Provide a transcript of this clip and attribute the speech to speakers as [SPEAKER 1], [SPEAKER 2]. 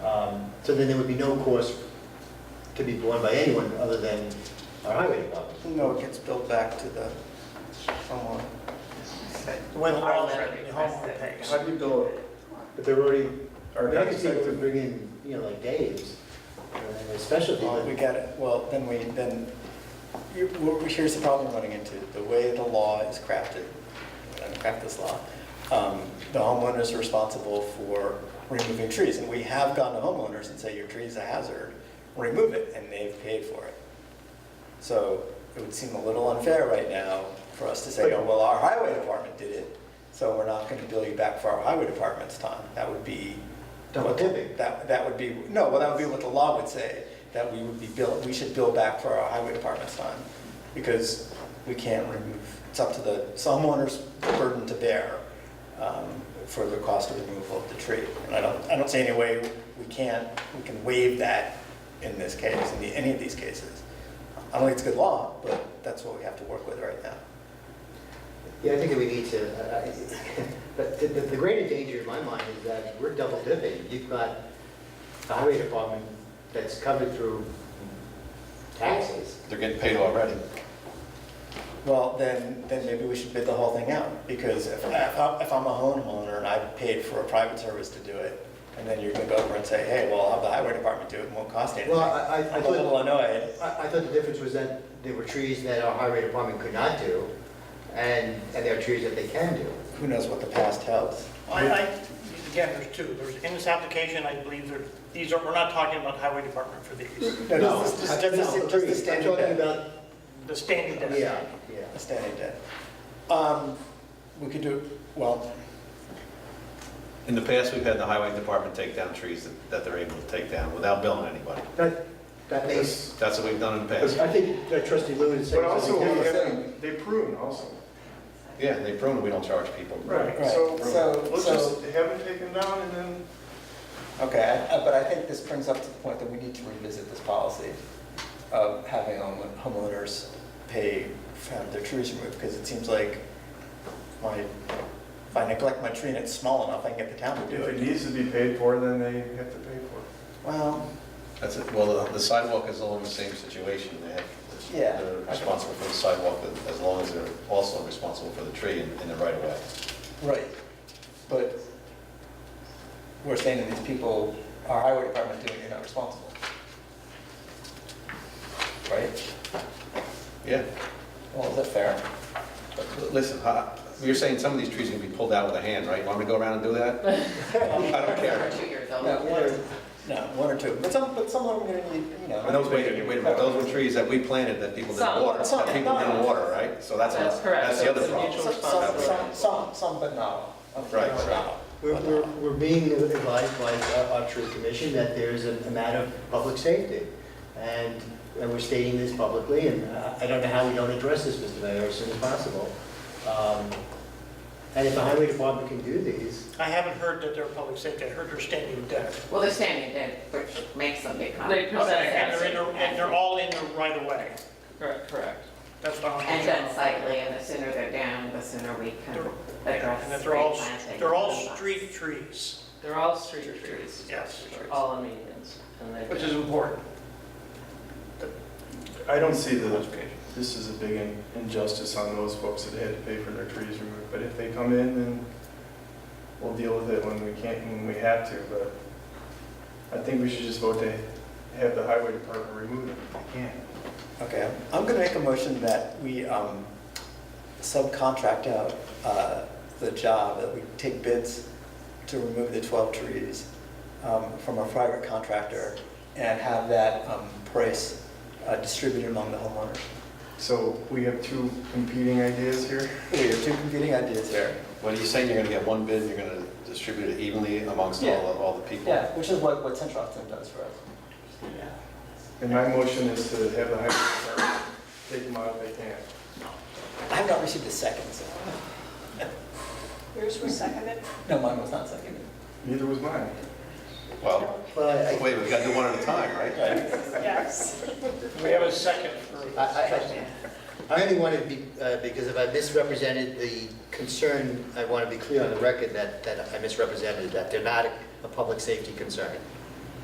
[SPEAKER 1] Um, So then there would be no cost to be borne by anyone other than our highway department.
[SPEAKER 2] No, it gets billed back to the homeowner.
[SPEAKER 3] When all
[SPEAKER 2] Homeowner
[SPEAKER 3] that, the homeowner
[SPEAKER 2] pays.
[SPEAKER 3] pays.
[SPEAKER 1] How do you bill it? But they're already,
[SPEAKER 4] Or
[SPEAKER 1] I can see if we
[SPEAKER 4] expected.
[SPEAKER 1] bring in, you know, like Dave's, uh, and a specialty,
[SPEAKER 2] Well, Oh, We
[SPEAKER 1] but
[SPEAKER 2] got it, well, then we, then, you- well, here's the problem we're running into, the way the law is crafted, I'm gonna craft this law, um, the homeowner's are responsible for removing trees, and we have gone to homeowners and say, your tree's a hazard, remove it, and they've paid for it. So it would seem a little unfair right now for us to say, oh, well, our highway department did it, so we're not gonna bill you back for our highway department's time, that would be.
[SPEAKER 1] Double dipping.
[SPEAKER 2] That, that would be, no, well, that would be what the law would say, that we would be billed, we should bill back for our highway department's time, because we can't remove, it's up to the, some owner's burden to bear um, for the cost of removal of the tree. And I don't, I don't see any way we can't, we can waive that in this case, in the- any of these cases. I don't think it's good law, but that's what we have to work with right now.
[SPEAKER 1] yeah, I think that we need to, I- I- but the, the the greater danger in my mind is that we're double dipping. You've got the highway department that's covered through taxes.
[SPEAKER 5] They're getting paid already.
[SPEAKER 2] Well, then, then maybe we should bid the whole thing out, because if, if I'm if I'm a homeowner and I paid for a private service to do it, and then you go over and say, hey, well, I'll have the highway department do it, it won't cost anything.
[SPEAKER 1] Well, I- I- I
[SPEAKER 2] I'm a
[SPEAKER 1] thought-
[SPEAKER 2] little annoyed.
[SPEAKER 1] I, I thought the difference was that there were trees that our highway department could not do, and, and there are trees that they can do.
[SPEAKER 2] Who knows what the past tells?
[SPEAKER 3] I, I, again, there's two, there's, in this application, I believe there, these are, we're not talking about highway department for these,
[SPEAKER 2] No, does this-
[SPEAKER 1] I-
[SPEAKER 2] does this-
[SPEAKER 1] no,
[SPEAKER 2] does this
[SPEAKER 1] trees. I'm
[SPEAKER 2] stand
[SPEAKER 1] talking
[SPEAKER 2] in that?
[SPEAKER 1] about,
[SPEAKER 3] the standing desk.
[SPEAKER 1] yeah, yeah.
[SPEAKER 2] A standing debt. Um, we could do, well,
[SPEAKER 6] In the past, we've had the highway department take down trees that- that they're able to take down without billing anybody.
[SPEAKER 1] That, that makes,
[SPEAKER 6] That's what we've done in the past.
[SPEAKER 1] I think that trustee Lou is saying.
[SPEAKER 4] But also,
[SPEAKER 1] something
[SPEAKER 4] we
[SPEAKER 1] different.
[SPEAKER 4] have- they prune also.
[SPEAKER 6] Yeah, they prune, it, we don't charge people.
[SPEAKER 2] Right.
[SPEAKER 4] So,
[SPEAKER 2] So-
[SPEAKER 4] let's
[SPEAKER 2] so-
[SPEAKER 4] just have it taken down and then,
[SPEAKER 2] okay, I- I- but I think this brings up to the point that we need to revisit this policy of having home- homeowners pay for having their trees removed, because it seems like my, if I neglect my tree and it's small enough, I can get the town to do
[SPEAKER 4] if it
[SPEAKER 2] it.
[SPEAKER 4] needs to be paid for, then they have to pay for it.
[SPEAKER 2] Well,
[SPEAKER 6] That's it, well, the- the sidewalk is all in the same situation, they have,
[SPEAKER 2] Yeah.
[SPEAKER 6] they're responsible for the sidewalk as long as they're also responsible for the tree in in the right of way.
[SPEAKER 2] right, but we're saying to these people, our highway department doing, it, you're not responsible. Right?
[SPEAKER 6] Yeah,
[SPEAKER 2] Well, is that fair?
[SPEAKER 6] but listen, hi- you're saying some of these trees can be pulled out with a hand, right? You want me to go around and do that? I don't care.
[SPEAKER 7] two years
[SPEAKER 2] No, one or, no, one or two, but some, but some of them are gonna need, you know.
[SPEAKER 6] And those, wait a minute, wait a minute, those were trees that we planted that people didn't
[SPEAKER 7] Some.
[SPEAKER 6] water,
[SPEAKER 2] Some.
[SPEAKER 6] that people didn't water, right? So that's,
[SPEAKER 7] That's correct.
[SPEAKER 6] that's the other
[SPEAKER 7] It's a
[SPEAKER 6] problem.
[SPEAKER 7] mutual
[SPEAKER 2] Some, some, some- some, some, but not all. Some,
[SPEAKER 6] Right,
[SPEAKER 2] but
[SPEAKER 6] right.
[SPEAKER 2] not all.
[SPEAKER 1] We're, we're, we're being advised by uh, our, our tree commission that there is a a matter of public safety. And, and we're stating this publicly, and uh, I don't know how we don't address this, Mr. Mayor, as soon as possible. Um, And if the highway department can do these,
[SPEAKER 3] I haven't heard that they're public safety, I heard they're standing desk.
[SPEAKER 7] Well, they're standing there, which makes them big.
[SPEAKER 8] They present
[SPEAKER 7] Okay.
[SPEAKER 3] And they're in, the- and they're all in the right of way,
[SPEAKER 8] Correct, correct.
[SPEAKER 3] that's what I'm.
[SPEAKER 7] And then slightly, and the sooner they're down, the sooner we can address
[SPEAKER 3] And that they're all,
[SPEAKER 7] replanting.
[SPEAKER 3] they're all street trees,
[SPEAKER 8] They're all street trees.
[SPEAKER 3] yes.
[SPEAKER 8] They're
[SPEAKER 7] Oh.
[SPEAKER 8] all in medians. and they-
[SPEAKER 3] Which is important.
[SPEAKER 4] I don't see the, this is a big in- injustice on those folks that had to pay for their trees removed, but if they come in, then we'll deal with it when we can't, when we have to, but I think we should just vote to have the highway department remove them if they can.
[SPEAKER 2] Okay, I'm gonna make a motion that we um, subcontract out uh, the job, that we take bids to remove the 12 trees um, from a private contractor and have that um, price uh, distributed among the homeowners.
[SPEAKER 4] So we have two competing ideas here.
[SPEAKER 2] We have two competing ideas here.
[SPEAKER 6] What are you saying, you're gonna get one bid, and you're gonna distribute it evenly amongst
[SPEAKER 2] Yeah.
[SPEAKER 6] all, of- all the people?
[SPEAKER 2] Yeah, which is what, what Central Hudson does for us.
[SPEAKER 4] And my motion is to have the highway department take them out if they can.
[SPEAKER 2] I have not received a second, so,
[SPEAKER 9] Yours was seconded?
[SPEAKER 2] no, mine was not seconded.
[SPEAKER 4] Neither was mine.
[SPEAKER 6] Well,
[SPEAKER 1] well, I,
[SPEAKER 6] wait, we gotta do one at a time, right?
[SPEAKER 9] Yes.
[SPEAKER 3] We have a second for.
[SPEAKER 1] I, I, I only want to be, uh, because if I misrepresented the concern, I want to be clear on the record that, that I misrepresented, that they're not a- a public safety concern.